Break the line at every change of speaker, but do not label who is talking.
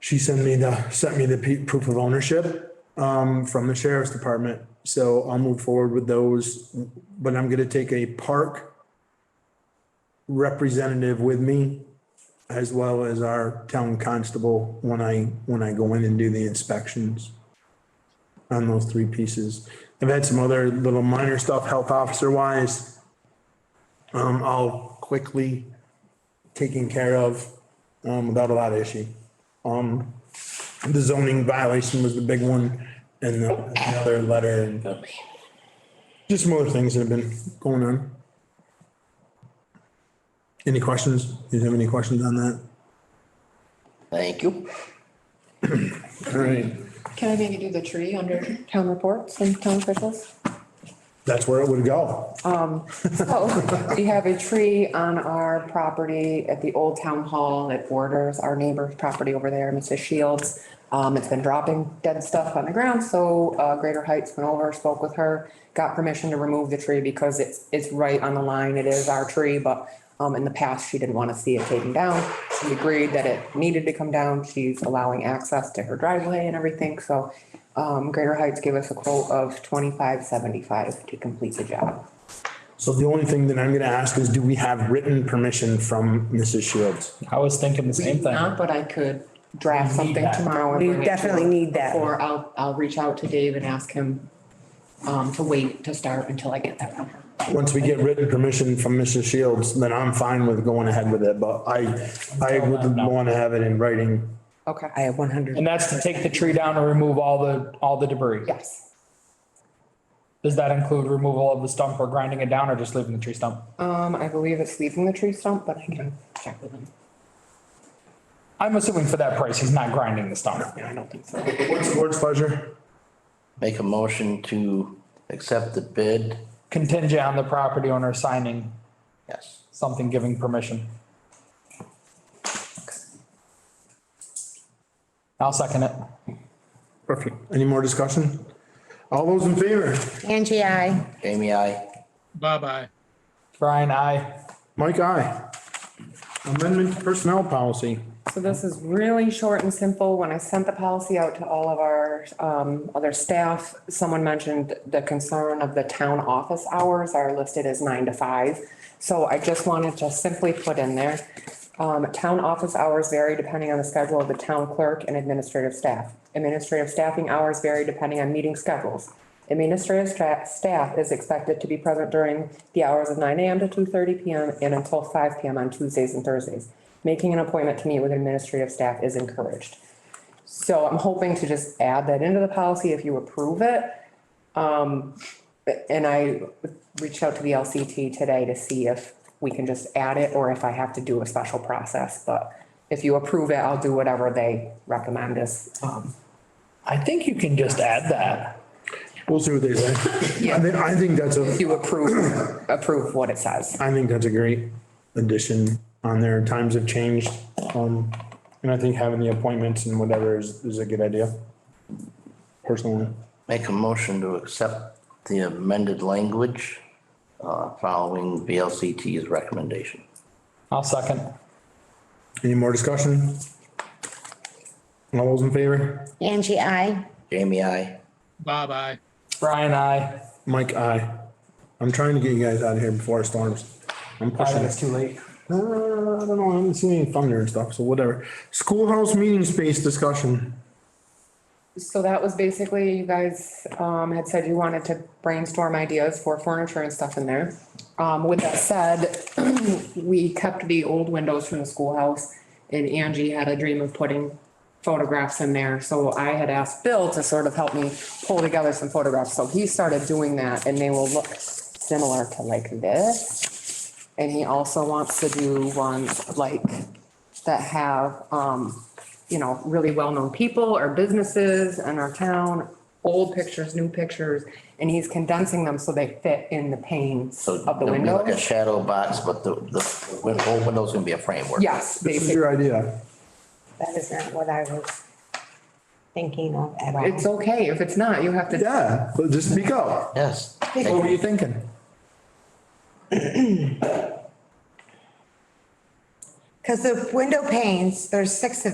she sent me the, sent me the pe- proof of ownership, um, from the sheriff's department. So I'll move forward with those, but I'm gonna take a park representative with me as well as our town constable when I, when I go in and do the inspections on those three pieces. I've had some other little minor stuff, health officer wise. Um, all quickly taken care of, um, without a lot of issue. Um, the zoning violation was the big one and the the other letter and just some other things that have been going on. Any questions? Do you have any questions on that?
Thank you.
All right,
Can I maybe do the tree under town reports and town officials?
that's where it would go.
So we have a tree on our property at the old town hall. It borders our neighbor's property over there, Mrs. Shields. Um, it's been dropping dead stuff on the ground, so, uh, Greater Heights went over, spoke with her, got permission to remove the tree because it's, it's right on the line. It is our tree, but, um, in the past, she didn't want to see it taken down. She agreed that it needed to come down. She's allowing access to her driveway and everything, so, um, Greater Heights gave us a quote of twenty-five seventy-five to complete the job.
So the only thing that I'm gonna ask is, do we have written permission from Mrs. Shields?
I was thinking the same
Not,
thing.
but I could draft something
that.
tomorrow. and
We
bring it to
definitely
him.
need that.
Or I'll, I'll reach out to Dave and ask him um, to wait to start until I get that from her.
Once we get written permission from Mrs. Shields, then I'm fine with going ahead with it, but I, I would wanna have it in writing.
Okay.
I have one hundred.
And that's to take the tree down and remove all the, all the debris.
Yes.
Does that include removal of the stump or grinding it down or just leaving the tree stump?
Um, I believe it's leaving the tree stump, but I can check with him.
I'm assuming for that price, he's not grinding the stump.
I don't think so.
What's the board's pleasure?
Make a motion to accept the bid.
Contingent on the property owner signing
Yes.
something giving permission. I'll second it.
Perfect. Any more discussion? All those in favor?
Angie, I.
Jamie, I.
Bye-bye.
Brian, I,
Mike, aye. Amendment to personnel policy.
So this is really short and simple. When I sent the policy out to all of our um, other staff, someone mentioned the concern of the town office hours are listed as nine to five. So I just wanted to simply put in there, um, town office hours vary depending on the schedule of the town clerk and administrative staff. Administrative staffing hours vary depending on meeting schedules. Administrative stra- staff is expected to be present during the hours of nine AM to two thirty PM and until five PM on Tuesdays and Thursdays. Making an appointment to meet with administrative staff is encouraged. So I'm hoping to just add that into the policy if you approve it. Um, and I reached out to the LCT today to see if we can just add it or if I have to do a special process, but if you approve it, I'll do whatever they recommend as, um,
I think you can just add that.
We'll see what they say. I think, I think that's a,
if you approve, approve what it says.
I think that's a great addition on there. Times have changed. Um, and I think having the appointments and whatever is, is a good idea. Personally,
Make a motion to accept the amended language, uh, following VLCT's recommendation.
I'll second.
any more discussion? All those in favor?
Angie, I.
Jamie, I.
Bye-bye.
Brian, I,
Mike, aye. I'm trying to get you guys out of here before it storms. I'm
I
pushing
think
it.
it's too late.
Uh, I don't know, I haven't seen any thunder and stuff, so whatever. Schoolhouse meeting space discussion.
So that was basically, you guys, um, had said you wanted to brainstorm ideas for furniture and stuff in there. Um, with that said, we kept the old windows from the schoolhouse and Angie had a dream of putting photographs in there. So I had asked Bill to sort of help me pull together some photographs. So he started doing that and they will look similar to like this. And he also wants to do ones like that have, um, you know, really well-known people or businesses in our town, old pictures, new pictures, and he's condensing them so they fit in the panes
So
of the
it'll be
window.
Like a shadow box, but the, the win- whole window's gonna be a framework.
Yes,
This is
basically.
your idea.
That is not what I was thinking of at all.
It's okay. If it's not, you have to.
Yeah, but just speak up.
Yes.
What were you thinking?
Because the window panes, there's six of